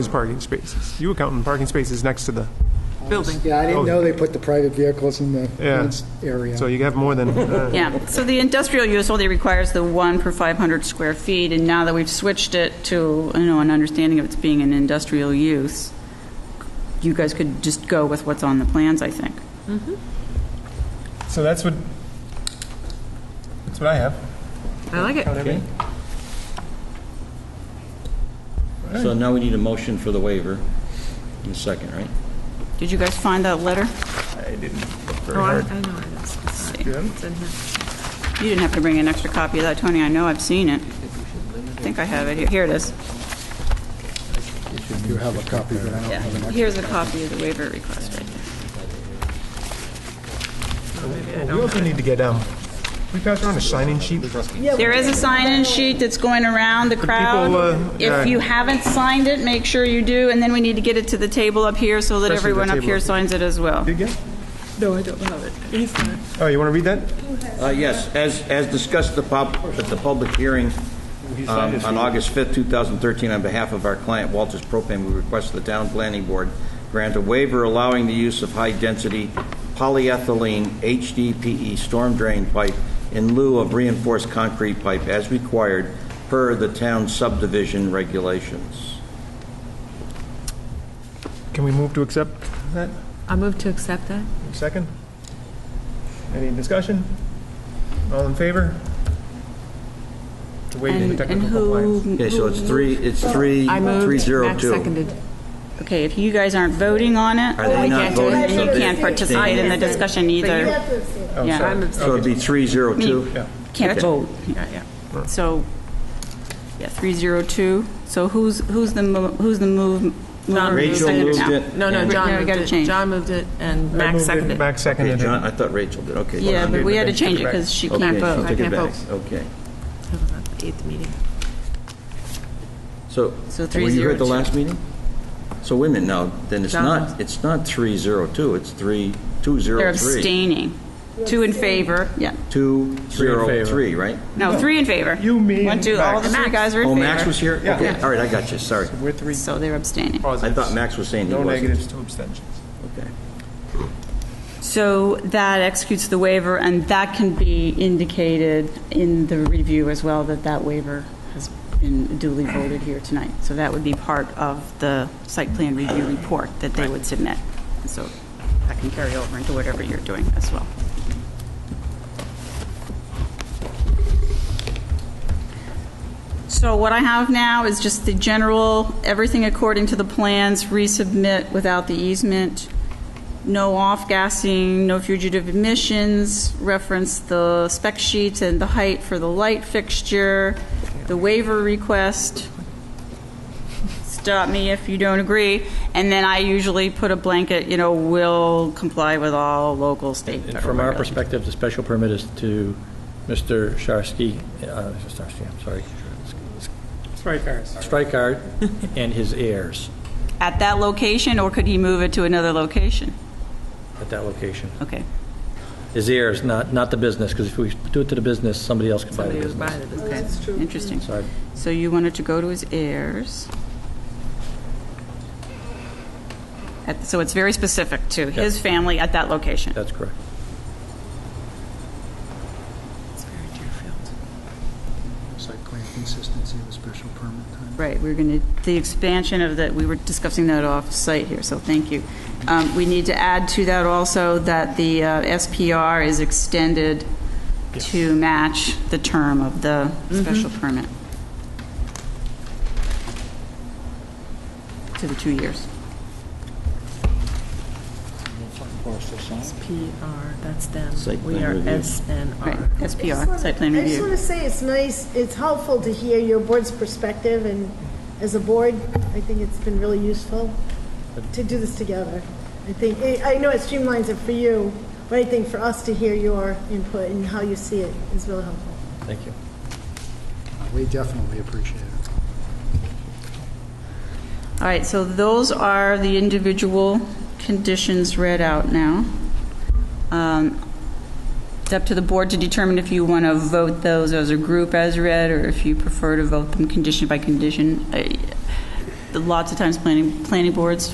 is parking spaces. You account in parking spaces next to the, building. Yeah, I Oh. didn't know they put the private vehicles in the Yeah. fenced area. so you have more than, uh, Yeah, so the industrial use only requires the one per 500 square feet, and now that we've switched it to, you know, an understanding of it's being an industrial use, you guys could just go with what's on the plans, I think. so that's what, that's what I have. I like it. Okay. So now we need a motion for the waiver in a second, right? Did you guys find that letter? Oh, I, I know it is. It's it's in here. You didn't have to bring an extra copy of that, Tony, I know, I've seen it. I think I have it, here Here it is. You have a copy, but I don't Yeah, have an here's a copy of the waiver request right there. We also need to get, um, we pass around a sign-in sheet. There is a sign-in sheet that's going around the people, uh, crowd. yeah. If you haven't signed it, make sure you do, and then we need to get it to the table up here so that Especially the everyone up table here up here. signs it as well. You get? No, I don't have it. He's got it. Oh, you want to read that? Uh, Yes, as, as discussed the pub- at the public hearing um, on August 5th, 2013, on behalf of our client Walters Propane, we request the town planning board grant a waiver allowing the use of high-density polyethylene HDPE E storm drain pipe in lieu of reinforced concrete pipe as required per the town subdivision regulations. Can we move to accept that? I move to accept that. Second? Any discussion? All in favor? To waive the And and technical who? compliance. Okay, so it's three, it's three, I moved. 302. Max seconded. Okay, if you guys aren't voting on Are it, they not can't do it. voting? then so you they- can't participate in the discussion either. have to abstain. Oh, Yeah. sorry. So it'd be 302? Yeah. Can't vote. Yeah, yeah. So, yeah, 302. So who's, who's the, mo- who's the move? mover, Rachel seconder moved now? it. No, no, Yeah. John Yeah, we moved gotta it. change. John moved it, and I Max moved it, seconded. Max Okay, seconded it. John, I thought Rachel did, okay. Yeah, John but did. we had to Take it change it back. because she Okay, can't she vote. took it can't back. vote. Okay. Hold on, Eighth meeting. So, oh, So were you here at 302. the last meeting? So wait a minute now, then it's John not, was. it's not 302, it's 3203. They're abstaining. Two in favor, yeah. 203, right? No, three in favor. You, me, One, and two, all the Max. three guys are in Oh, favor. Max was here? Yeah. Okay, all right, I got you, sorry. We're three So they're abstaining. I positives. thought Max was saying he No wasn't. negatives, two abstentions. Okay. So that executes the waiver, and that can be indicated in the review as well, that that waiver has been duly voted here tonight. So that would be part of the site plan review report that they would submit. And So that can carry over into whatever you're doing as well. So what I have now is just the general, everything according to the plans, resubmit without the easement, no off-gassing, no fugitive emissions, reference the spec sheets and the height for the light fixture, the waiver request, stop me if you don't agree, and then I usually put a blanket, you know, will comply with all local, state, And federal From our regulations. perspective, the special permit is to Mr. Sharsky, uh, Sharsky, I'm sorry, Strikeart and his heirs At that location, or could he move it to another location? at that location. Okay. His heirs, not, not the business, because if we do it to the business, somebody else can buy the Somebody was business. by the business. Interesting. Sorry. So you wanted to go to his heirs. At- So it's very specific to his family at that location. That's correct. It's very Deerfield. Site plan consistency of the special permit time. Right, we're going to, the expansion of that, we were discussing that off-site here, so thank you. Um, We need to add to that also that the uh, SPR is extended to match the term of the special permit. To the two years. PR, that's them. Site We plan are review. Right, SNR. SPR, site plan I just want review. to say, it's nice, it's helpful to hear your board's perspective, and as a board, I think it's been really useful to do this together. I think, I I know it streamlines it for you, but I think for us to hear your input and how you see it is really helpful. Thank you. We definitely appreciate it. All right, so those are the individual conditions read out now. Um, It's up to the board to determine if you want to vote Uh, those as a group as read, or if you prefer to vote them condition by condition. I- lots of times planning, planning boards